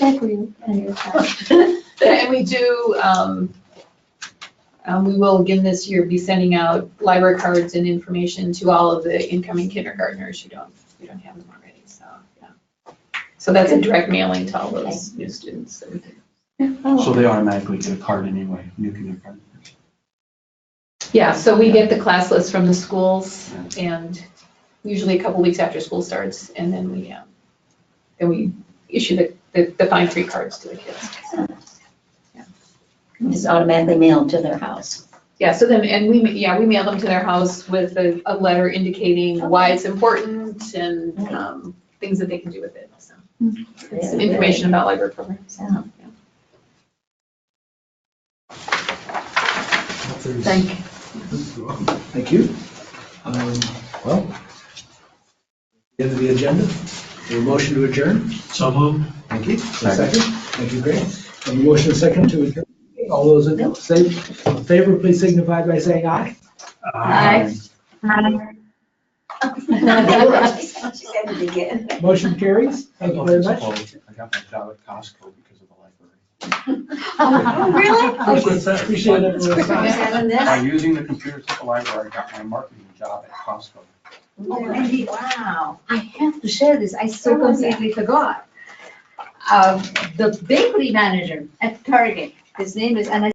think we, anyway. And we do, um, um, we will again this year be sending out library cards and information to all of the incoming kindergartners who don't, who don't have them already, so, yeah. So that's a direct mailing to all those new students that we did. So they automatically get a card anyway, new kindergarten. Yeah, so we get the class list from the schools and usually a couple weeks after school starts and then we, um, then we issue the, the, the fine free cards to the kids. It's automatically mailed to their house. Yeah, so then, and we, ma- yeah, we mail them to their house with a, a letter indicating why it's important and, um, things that they can do with it, so. it's Some information about library programs. Yeah. Thank you. Thank you. Um, Well, end of the agenda, a motion to adjourn. So moved. Thank you. A Second. Thank you, Greg. A motion and second to adjourn. All those in sa- favor, please signify by saying aye. Aye. She said it again. Motion carries. Thank you very much. I got my job at Costco because of the library. Really? Appreciate everyone's time. Seven By using the computers at the library, I got my marketing job at Costco. Oh, Wow. I have to share this, I so completely Um, forgot. Uh, The bakery manager at Target, his name is, and I